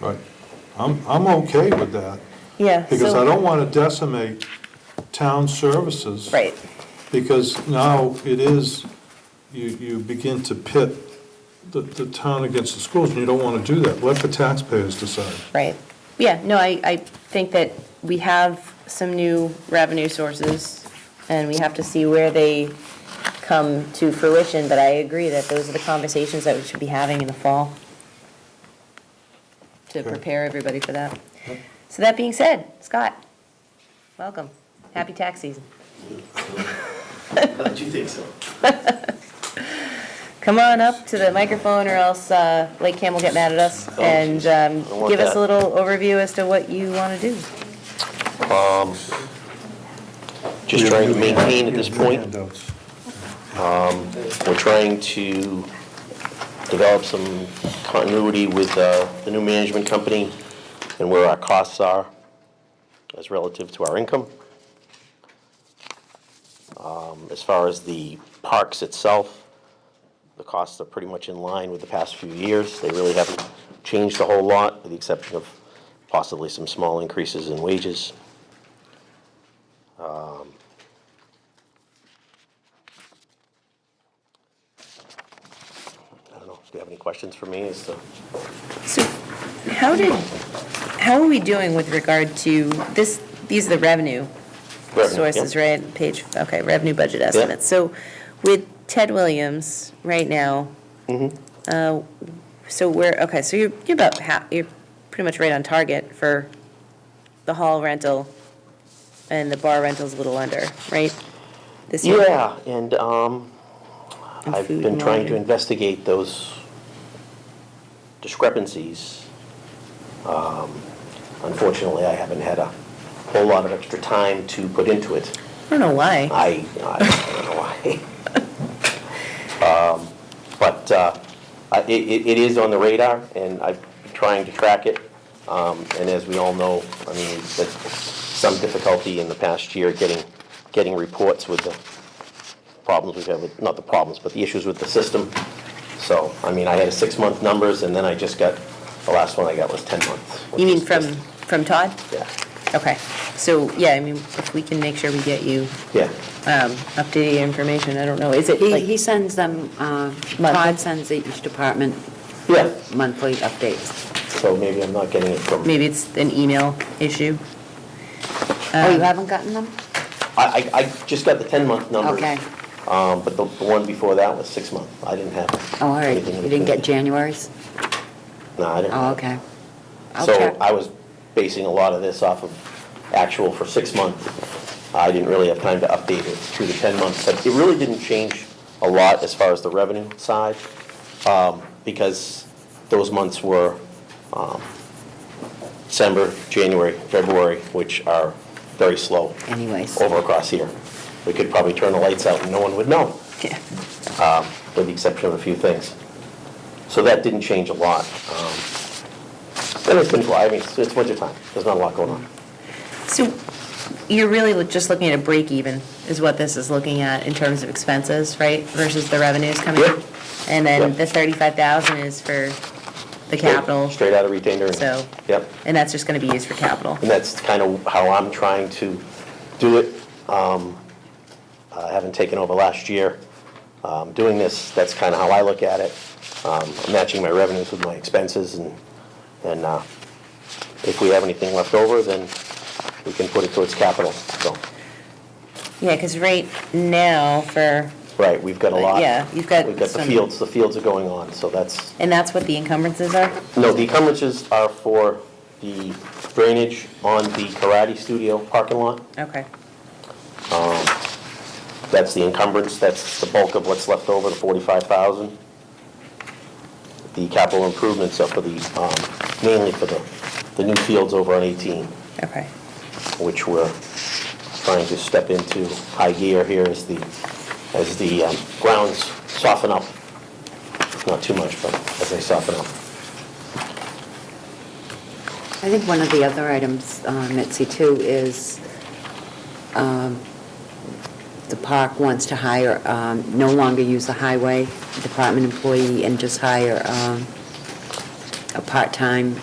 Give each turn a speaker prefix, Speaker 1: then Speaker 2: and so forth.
Speaker 1: Right. I'm, I'm okay with that,
Speaker 2: Yeah.
Speaker 1: because
Speaker 2: so-
Speaker 1: I don't want to decimate town services.
Speaker 2: Right,
Speaker 1: Because now it is, you, you begin to pit the, the town against the schools, and you don't want to do that. Let the taxpayers decide.
Speaker 2: right. Yeah, no, I, I think that we have some new revenue sources, and we have to see where they come to fruition, but I agree that those are the conversations that we should be having in the fall to
Speaker 1: Okay.
Speaker 2: prepare everybody for that. So that being said, Scott, welcome. Happy tax season.
Speaker 3: Glad you think so.
Speaker 2: Come on up to the microphone, or else uh, Lake Cam will get mad at us, and um,
Speaker 4: don't want
Speaker 2: give us
Speaker 4: that.
Speaker 2: a little overview as to what you want to do.
Speaker 4: Just trying to maintain at this point.
Speaker 1: Handouts.
Speaker 4: We're trying to develop some continuity with uh, the new management company and where our costs are as relative to our income. Um, As far as the parks itself, the costs are pretty much in line with the past few years. They really haven't changed a whole lot, with the exception of possibly some small increases in wages. I don't know, do you have any questions for me as to?
Speaker 2: So how did, how are we doing with regard to this, these are the revenue sources,
Speaker 4: Yeah.
Speaker 2: right? Page, okay, revenue budget estimates. So with Ted Williams right now,
Speaker 4: Mm-hmm.
Speaker 2: uh, so we're, okay, so you're, you're about half, you're pretty much right on target for the hall rental and the bar rental's a little under, right? This year?
Speaker 4: Yeah, and um,
Speaker 2: And
Speaker 4: I've
Speaker 2: food
Speaker 4: been
Speaker 2: and
Speaker 4: trying to
Speaker 2: lodging.
Speaker 4: investigate those discrepancies. Um, Unfortunately, I haven't had a whole lot of extra time to put into it.
Speaker 2: I don't know why.
Speaker 4: I, I don't know why. Um, But uh, I- it, it it is on the radar, and I'm trying to track it. Um, And as we all know, I mean, there's some difficulty in the past year getting, getting reports with the problems we've had with, not the problems, but the issues with the system. So, I mean, I had a six-month numbers, and then I just got, the last one I got was 10 months. which
Speaker 2: You mean
Speaker 4: is
Speaker 2: from,
Speaker 4: just-
Speaker 2: from Todd?
Speaker 4: Yeah,
Speaker 2: Okay, so, yeah, I mean, if we can make sure we get you
Speaker 4: yeah.
Speaker 2: um, updated information, I don't know, is it
Speaker 5: He,
Speaker 2: like?
Speaker 5: he sends them, uh, Todd sends each department
Speaker 4: Yeah.
Speaker 5: monthly updates.
Speaker 4: So maybe I'm not getting it from.
Speaker 2: Maybe it's an email issue?
Speaker 5: Oh, you
Speaker 2: Um,
Speaker 5: haven't gotten them?
Speaker 4: I, I, I just got the ten-month numbers.
Speaker 5: Okay.
Speaker 4: Um, but the, the one before that was six-month. I didn't have.
Speaker 5: Oh, all right,
Speaker 4: anything in
Speaker 5: you didn't get
Speaker 4: between.
Speaker 5: January's?
Speaker 4: No, I didn't.
Speaker 5: Oh, okay. I'll
Speaker 4: So
Speaker 5: check.
Speaker 4: I was basing a lot of this off of actual for six months. I didn't really have time to update it through the ten months, but it really didn't change a lot as far as the revenue side, um, because those months were, um, December, January, February, which are very slow.
Speaker 5: Anyways.
Speaker 4: Over across here. We could probably turn the lights out and no one would know
Speaker 2: Yeah.
Speaker 4: with the exception of a few things. So that didn't change a lot. Um, And it's been July, I mean, it's it's winter time, there's not a lot going on.
Speaker 2: So you're really look- just looking at a break even, is what this is looking at in terms of expenses, right? Versus the revenues coming in?
Speaker 4: Yep.
Speaker 2: And then
Speaker 4: Yep.
Speaker 2: the 35,000 is for the capital,
Speaker 4: Straight out of retained earnings.
Speaker 2: So-
Speaker 4: Yep,
Speaker 2: and that's just going to be used for capital?
Speaker 4: and that's kind of how I'm trying to do it. Um, I haven't taken over last year. Um, Doing this, that's kind of how I look at it. Um, I'm Matching my revenues with my expenses and, and uh, if we have anything left over, then we can put it towards capital, so.
Speaker 2: Yeah, because right now for,
Speaker 4: Right, we've got a lot.
Speaker 2: Yeah, you've got
Speaker 4: We've got the
Speaker 2: some-
Speaker 4: fields, the fields are going on, so that's,
Speaker 2: and that's what the encumbrances are?
Speaker 4: no, the encumbrances are for the drainage on the karate studio parking lot.
Speaker 2: Okay,
Speaker 4: That's the encumbrance, that's the bulk of what's left over, the forty-five thousand. The capital improvements are for the, um, mainly for the, the new fields over on eighteen,
Speaker 2: okay.
Speaker 4: which we're trying to step into high gear here as the, as the um, grounds soften up. Not too much, but as they soften up.
Speaker 5: I think one of the other items, uh, Mitzi, too, is um, the park wants to hire, um, no longer use a highway department employee and just hire um, a part-time